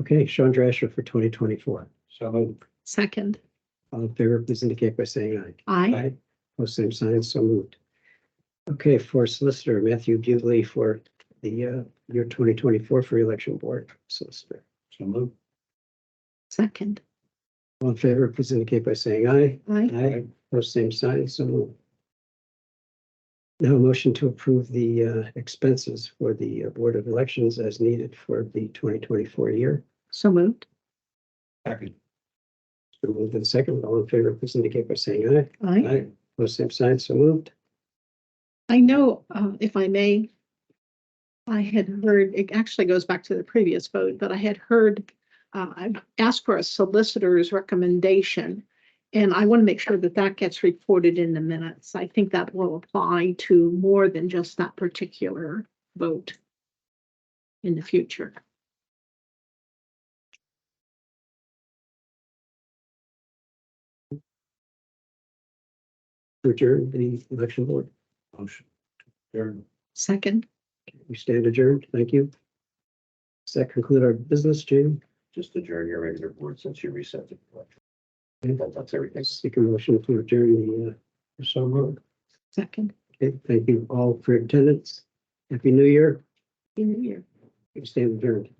Okay, Sean Drasher for twenty twenty-four. So moved. Second, All in favor, please indicate by saying aye. aye. Post same sign, so moved. Okay, for Solicitor Matthew Bugley for the uh, year twenty twenty-four for Election Board Solicitor. So moved. Second, All in favor, please indicate by saying aye. aye. Aye. Post same sign, so moved. Now a motion to approve the uh, expenses for the uh, Board of Elections as needed for the twenty twenty-four year. So moved, Second. So moved and second, all in favor, please indicate by saying aye. aye. Post same sign, so moved. I know, uh, if I may, I had heard, it actually goes back to the previous vote, but I had heard, uh, I asked for a solicitor's recommendation. And I want to make sure that that gets reported in the minutes. I think that will apply to more than just that particular vote in the future. Adjourn the Election Board. Motion. Third. Second, We stand adjourned. Thank you. Does that conclude our business, Jim? Just adjourn your regular board since you reset the. That- That's everything. Seek a motion to adjourn the, uh, So moved. second, okay, thank you all for your attendance. Happy New Year. in the year. We stand adjourned.